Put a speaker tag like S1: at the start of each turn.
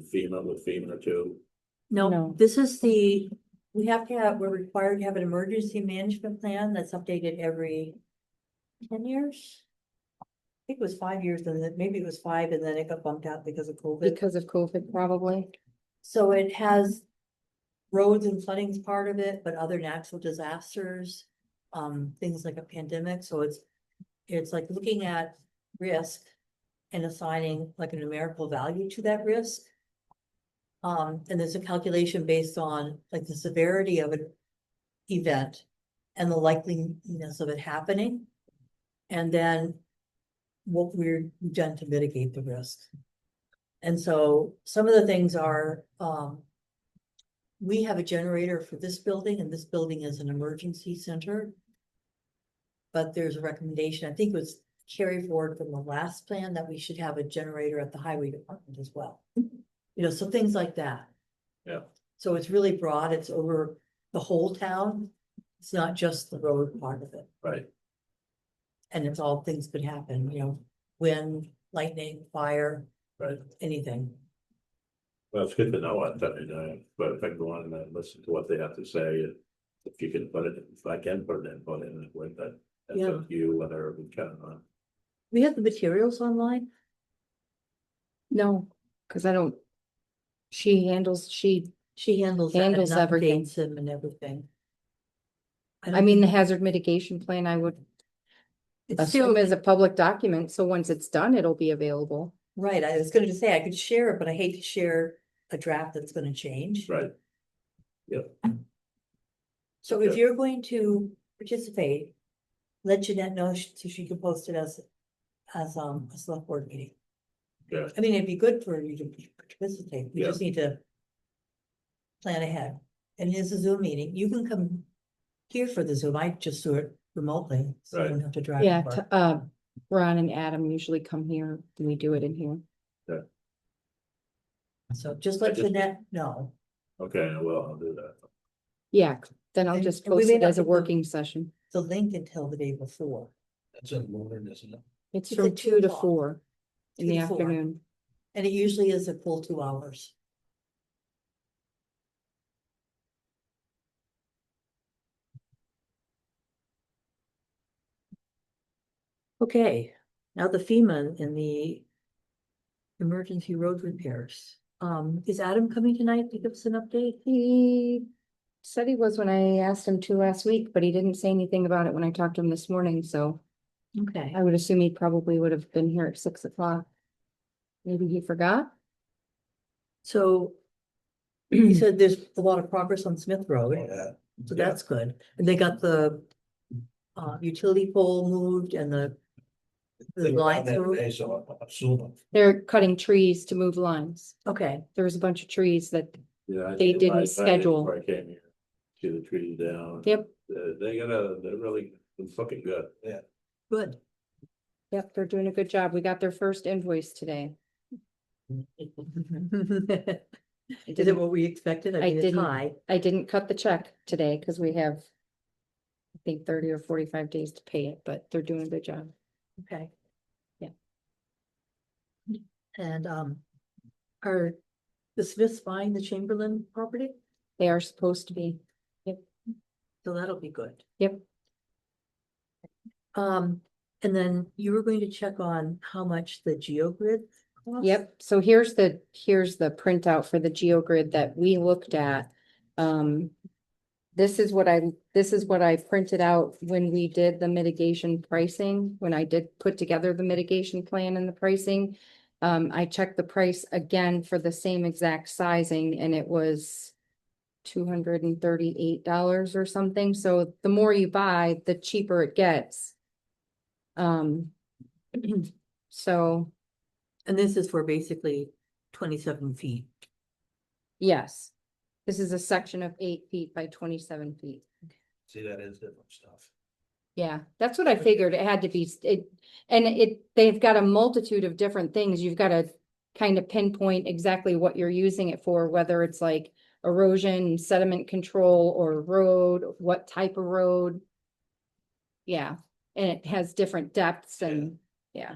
S1: FEMA with FEMA too.
S2: No,
S3: No.
S2: this is the, we have to have, we're required to have an emergency management plan that's updated every ten years. I think it was five years and then maybe it was five and then it got bumped out because of COVID.
S3: because of COVID, probably.
S2: So it has roads and flooding's part of it, but other natural disasters, um, things like a pandemic, so it's, it's like looking at risk and assigning like a numerical value to that risk. Um, and there's a calculation based on like the severity of an event and the likeliness of it happening. And then what we're done to mitigate the risk. And so some of the things are, um. We have a generator for this building and this building is an emergency center. But there's a recommendation, I think it was carried forward from the last plan that we should have a generator at the highway department as well. You know, so things like that.
S1: Yeah.
S2: So it's really broad, it's over the whole town, it's not just the road part of it.
S1: Right.
S2: And it's all things could happen, you know, wind, lightning, fire.
S1: Right.
S2: Anything.
S1: Well, it's good to know what, I mean, uh, but if I go on and listen to what they have to say, and if you can put it, if I can put it in, put it in with that. That's up to you whether we can uh, or not.
S2: We have the materials online.
S3: No, because I don't. She handles, she,
S2: She handles. that and
S3: Handles everything.
S2: updates them And everything.
S3: I
S2: don't
S3: mean, the
S2: think-
S3: hazard mitigation plan, I would
S2: it's still,
S3: assume is a public document, so once it's done, it'll be available.
S2: right, I was gonna just say, I could share it, but I hate to share a draft that's gonna change.
S1: Right,
S2: So if you're going to participate, let Jeanette know sh- so she can post it as, as, um, a select board meeting.
S1: Yeah.
S2: I mean, it'd be good for you to participate, we just need to plan ahead, and it's a Zoom meeting, you can come here for the Zoom, I just do it remotely, so you don't have to drive.
S3: Yeah,
S2: far.
S3: t- uh, Ron and Adam usually come here, and we do it in here.
S2: So just let
S1: Just-
S2: Jeanette know.
S1: okay, well, I'll do that.
S3: Yeah, then I'll
S2: And-
S3: just
S2: and we
S3: post
S2: may
S3: it
S2: not
S3: as a
S2: get the-
S3: working session.
S2: the link until the day before.
S1: That's a modern, isn't it?
S3: It's
S2: It's at
S3: from
S2: two
S3: two to
S2: o'clock.
S3: four in
S2: Two
S3: the
S2: to four.
S3: afternoon.
S2: And it usually is a full two hours. Okay, now the FEMA and the emergency road repairs. Um, is Adam coming tonight to give us an update?
S3: He said he was when I asked him to last week, but he didn't say anything about it when I talked to him this morning, so
S2: Okay.
S3: I would assume he probably would have been here at six o'clock. Maybe he forgot.
S2: So you said there's a lot of progress on Smith Road. So
S1: Yeah.
S2: that's good. And they got the uh utility pole moved and the the lines moved.
S1: uh,
S3: They're cutting trees to move lines.
S2: Okay,
S3: There was a bunch of trees that,
S1: Yeah. I
S3: They
S1: did
S3: didn't
S1: my- I did
S3: schedule.
S1: before I came here, see the trees down.
S3: yep,
S1: They, they gotta, they're really looking good. Yeah.
S2: good.
S3: yep, they're doing a good job. We got their first invoice today.
S2: Mm-hmm. Is
S3: I
S2: it
S3: didn't,
S2: what we expected?
S3: I
S2: I mean, it's
S3: didn't-
S2: high.
S3: I didn't cut the check today because we have I think thirty or forty-five days to pay it, but they're doing a good job.
S2: Okay.
S3: Yeah.
S2: And um are the Smiths buying the Chamberlain property?
S3: They are supposed to be.
S2: So that'll be good.
S3: Yep.
S2: Um, and then you were going to check on how much the GeoGrid. costs?
S3: Yep, so here's the, here's the printout for the GeoGrid that we looked at. Um, this is what I, this is what I printed out when we did the mitigation pricing, when I did put together the mitigation plan and the pricing. Um, I checked the price again for the same exact sizing and it was two hundred and thirty-eight dollars or something, so the more you buy, the cheaper it gets. Um, so
S2: And this is for basically twenty-seven feet.
S3: Yes. This is a section of eight feet by twenty-seven feet.
S1: See, that is different stuff.
S3: Yeah, that's what I figured. It had to be, s- it, and it, they've got a multitude of different things. You've got to kind of pinpoint exactly what you're using it for, whether it's like erosion, sediment control, or road, what type of road. Yeah, and it has different depths
S1: Yeah.
S3: and, yeah,